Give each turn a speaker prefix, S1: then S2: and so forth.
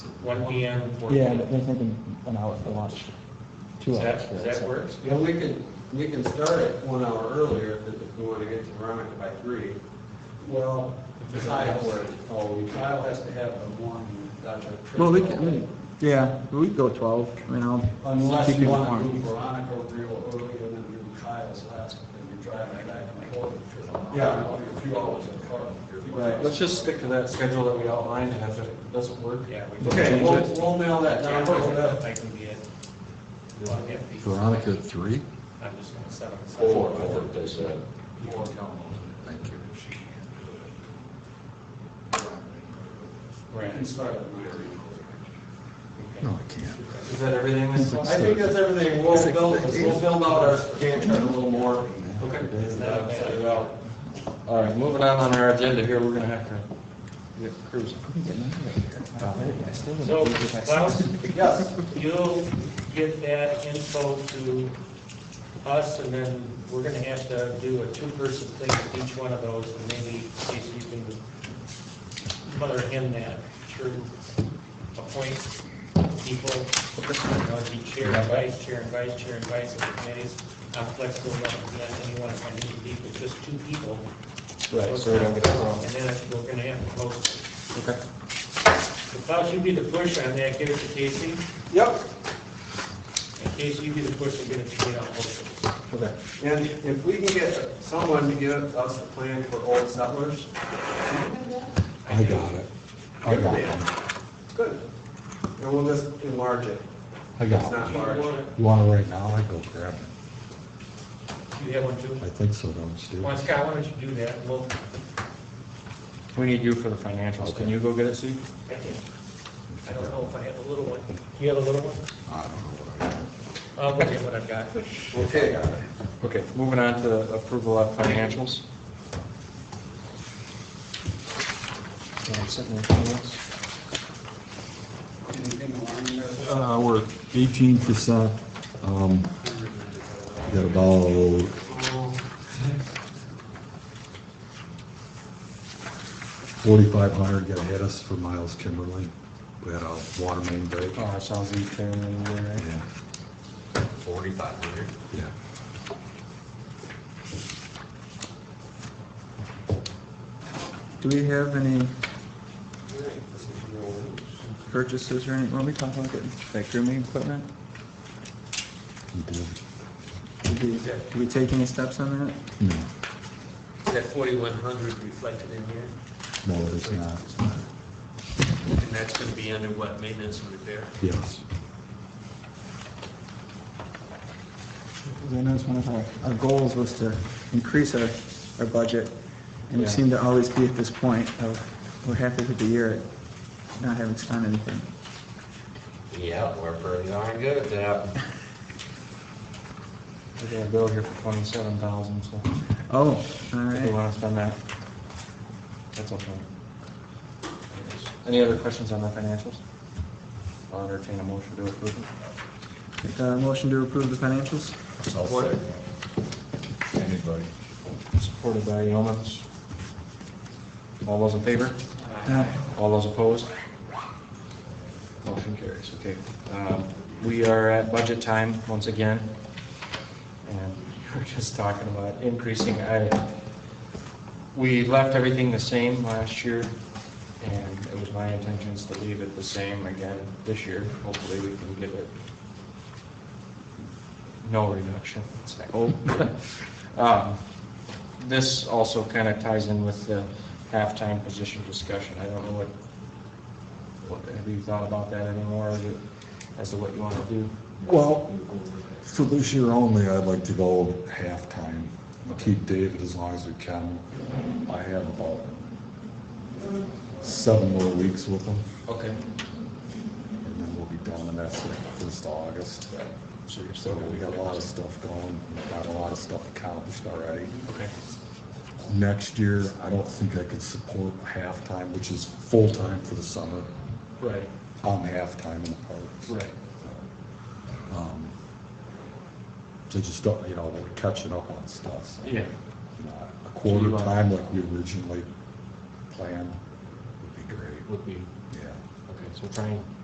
S1: one P M and four P
S2: Yeah,
S1: M.
S2: but they're thinking an hour for lunch, two
S1: Does
S2: hours
S1: that,
S2: for
S1: does that work?
S3: Yeah, we can, we can start it one hour earlier if if we want to get to Ronick by three.
S4: Well, the tile, oh, the tile has to have a morning, Dr. Tristan.
S2: Well, we can, yeah, we can go twelve, I mean, I'll.
S4: Unless
S2: keep
S4: you
S2: it
S4: want to
S2: warm.
S4: do Veronica real early and then do Kyle's last, and you're driving back and forth.
S3: Yeah.
S4: A few hours in the car.
S3: Right, let's just stick to that schedule that we outlined, and if it doesn't work.
S1: Yeah. we can
S3: Okay,
S1: change
S3: we'll,
S1: it.
S3: we'll nail that
S1: Yeah,
S3: down.
S1: I I can get, I'll get the-
S5: Veronica, three?
S1: I'm just gonna set up.
S6: Four, I think they said.
S4: Before Calhoun.
S5: Thank you.
S4: You can
S1: Right.
S4: start at nine.
S5: No, I can't.
S3: Is that everything?
S2: Mm-hmm.
S5: It's like
S3: I think that's everything. We'll
S5: Six
S3: build,
S5: days.
S3: we'll build out our Gantt chart a little more.
S5: Okay.
S3: Uh, set it out. All right, moving on on our agenda here, we're gonna have to get cruising.
S2: I can get an hour here. Wow, I still wouldn't
S1: So,
S2: be if I-
S1: Klaus,
S3: Yes.
S1: you'll get that info to us, and then we're gonna have to do a two-person thing with each one of those, and maybe, Casey, you can mother him that through appoint people, you know, it'd be chair and vice chair and vice chair and vice of the committees. I'm flexible enough, if you anyone, if I need to be, but just two people.
S3: Right, so we don't get it wrong.
S1: And then we're gonna have to post it.
S3: Okay.
S1: So Klaus, you be the push on that, give it to Casey.
S3: Yep.
S1: In case you get a push, you get it, you know, hopefully.
S3: Okay. And if we can get someone to give us a plan for old settlers,
S5: I got it. I got it.
S3: good. And we'll just enlarge it.
S5: I
S3: It's not
S5: got it.
S3: large.
S5: You want it right now? I go grab it.
S1: You have one too?
S5: I think so, don't you?
S1: Well, Scott, why don't you do that? Well,
S3: We need you for the financials. Can you go get it, Steve?
S1: I can, I don't know if I have a little one. Do you have a little one?
S5: I don't know what I got.
S1: I'll look at what I've got.
S3: Okay. Okay, moving on to approval of financials.
S4: Anything along there?
S5: Uh, we're eighteen percent, um, got about forty-five hundred got hit us for Miles Kimberly. We had a water main break.
S3: Oh, sounds like you're in there.
S5: Yeah,
S6: Forty-five hundred.
S5: yeah.
S2: Do we have any purchases or any, when we talk about getting that grooming equipment,
S5: We did.
S2: did we, did we take any steps on that?
S5: No,
S6: That forty-one hundred reflected in here,
S5: no, it's not.
S6: and that's gonna be under what, maintenance and repair?
S5: Yes.
S2: Because I know it's one of our, our goals was to increase our, our budget, and we
S3: Yeah.
S2: seem to always be at this point of, we're happy with the year at not having spent anything.
S6: Yeah, we're pretty darn good at that.
S3: We got a bill here for twenty-seven thousand, so
S2: Oh, all
S3: if you
S2: right.
S3: wanna spend that, that's okay. Any other questions on the financials? I'll entertain a motion to approve it.
S2: Make a Uh, motion to approve the financials?
S5: Anybody?
S3: Supported by Yeomans. All those in favor?
S2: Uh,
S3: All those opposed? Motion carries, okay. Um, We are at budget time once again, and we we're just talking about increasing. I- We left everything the same last year, and it was my intentions to leave it the same again this year. Hopefully, we can give it no reduction, it's like, oh. Um, This also kind of ties in with the halftime position discussion. I don't know what, what, have you thought about that anymore, or is it- as to what you want to do?
S5: Well, for this year only, I'd like to go halftime, keep David as long as we can. I have about seven more weeks with him,
S3: Okay.
S5: and then we'll be done, and that's like first of August.
S3: So you're
S5: So
S3: still
S5: we got a lot of stuff going, got a lot of stuff accomplished already.
S3: Okay.
S5: Next year, I don't think I could support halftime, which is full-time for the summer.
S3: Right,
S5: I'm halftime in the parks.
S3: right.
S5: Um, So just don't, you know, we're catching up on stuff. so,
S3: Yeah.
S5: you know, A quarter
S3: So you, uh,
S5: time like we originally planned would be great,
S3: Would be,
S5: yeah.
S3: okay, so trying